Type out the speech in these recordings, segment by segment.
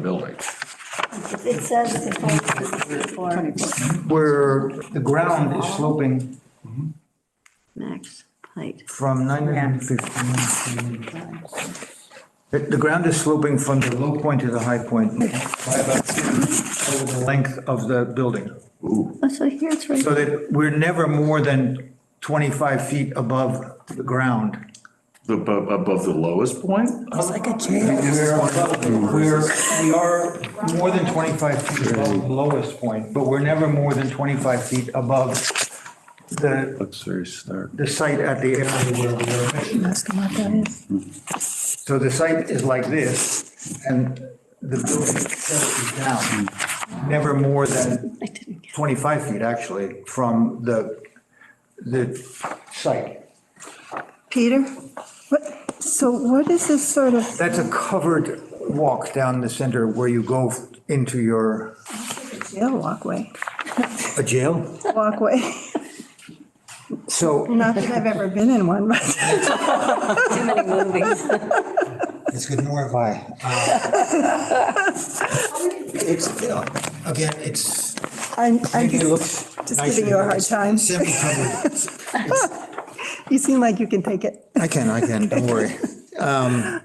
building. It says the height is 24 where the ground is sloping max height. from 915 to. The, the ground is sloping from the low point to the high point by about over the length of the building. Oh, So here it's right, So that we're never more than 25 feet above the ground. Above, above the lowest point? It's like a jail. We're, we're, we are more than 25 feet above the lowest point, but we're never more than 25 feet above the, Looks very stark. the site at the area where we are measuring. Ask him what that is. So the site is like this, and the building itself is down, never more than I didn't get 25 feet, actually, from the, the site. Peter, what, so what is this sort of, That's a covered walk down the center where you go into your, jail walkway, a jail? walkway? So Not that I've ever been in one, but too many movies. It's good, nor have I. Uh, It's, you know, again, it's, I'm, I'm maybe it just looks just nice giving you a hard time. Semi-covered. You seem like you can take it. I can, I can, don't worry. Um,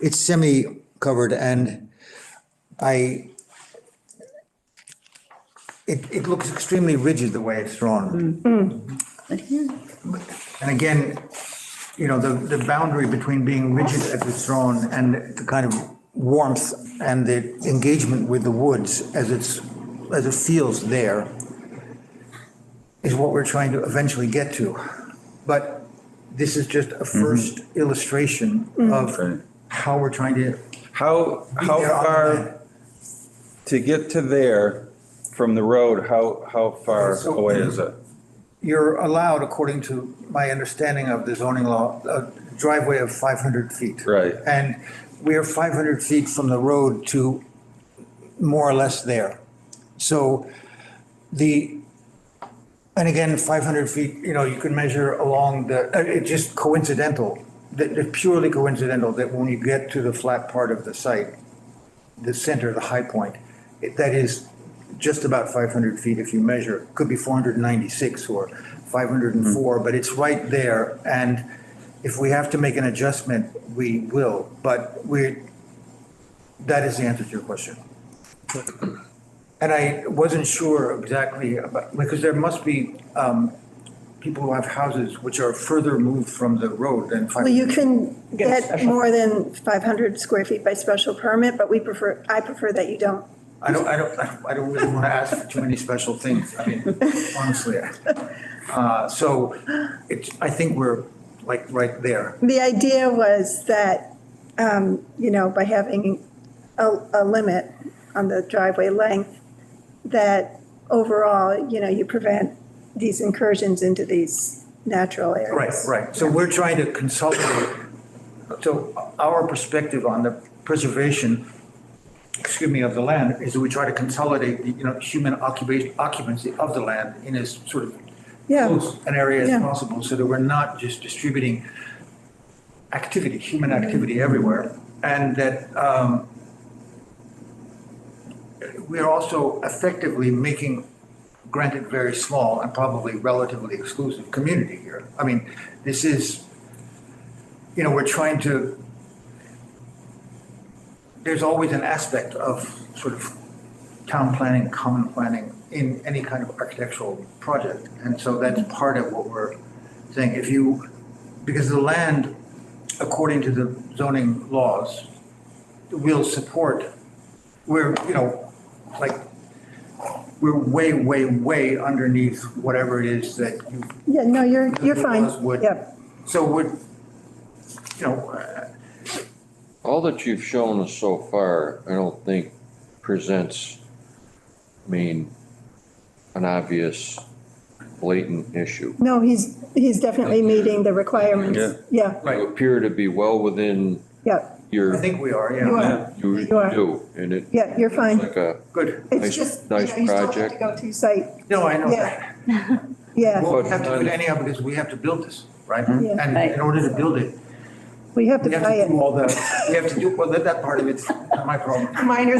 It's semi-covered and I, it, it looks extremely rigid the way it's drawn. But here, And again, you know, the, the boundary between being rigid as it's drawn and the kind of warmth and the engagement with the woods as it's, as it feels there is what we're trying to eventually get to. But this is just a Mm-hmm. first illustration Right. of how we're trying to How, Mm-hmm. how there on far, to get to there from the road, how, how far So- away is it? You're allowed, according to my understanding of the zoning law, a driveway of 500 feet. Right. And we are 500 feet from the road to more or less there. So the, and again, 500 feet, you know, you can measure along the, uh, it's just coincidental, that- that purely coincidental that when you get to the flat part of the site, the center, the high point, it- that is just about 500 feet if you measure. Could be 496 or 504, but it's right there. And if we have to make an adjustment, we will. But we, that is the answer to your question. And I wasn't sure exactly about, because there must be um, people who have houses which are further moved from the road than 500. Well, you can Get a get special- more than 500 square feet by special permit, but we prefer, I prefer that you don't. I don't, I don't, I don't really want to ask for too many special things, I mean, honestly. Uh, So it's, I think we're like right there. The idea was that, um, you know, by having a, a limit on the driveway length, that overall, you know, you prevent these incursions into these natural areas. Right, right. So we're trying to consolidate, so our perspective on the preservation, excuse me, of the land is that we try to consolidate, the you know, human occupation, occupancy of the land in as sort of Yeah, close an area as Yeah. possible so that we're not just distributing activity, human activity everywhere. And that um, we are also effectively making, granted very small and probably relatively exclusive community here. I mean, this is, you know, we're trying to, there's always an aspect of sort of town planning, common planning in any kind of architectural project. And so that's Mm-hmm. part of what we're saying. If you, because the land, according to the zoning laws, will support, we're, you know, like, we're way, way, way underneath whatever it is that you yeah, no, you're, you're The fine. laws would- Yeah, so would, you know, uh, All that you've shown us so far, I don't think presents, I mean, an obvious blatant issue. no, he's, he's definitely meeting the Yeah. requirements. Yeah, Right. You appear to be well within yeah, I your, think we are, you yeah. are, you You are. do, and it, yeah, you're fine. like a, Good. It's Nice- just, you know, you nice still have to project. go to site, No, I know Yeah. that. yeah. Well, we have to do it anyhow because we have to build this, right? Yeah. And in order to build it, We have to we have play to it. do all the, we have to do, well, that, that part of it's not my problem. Minor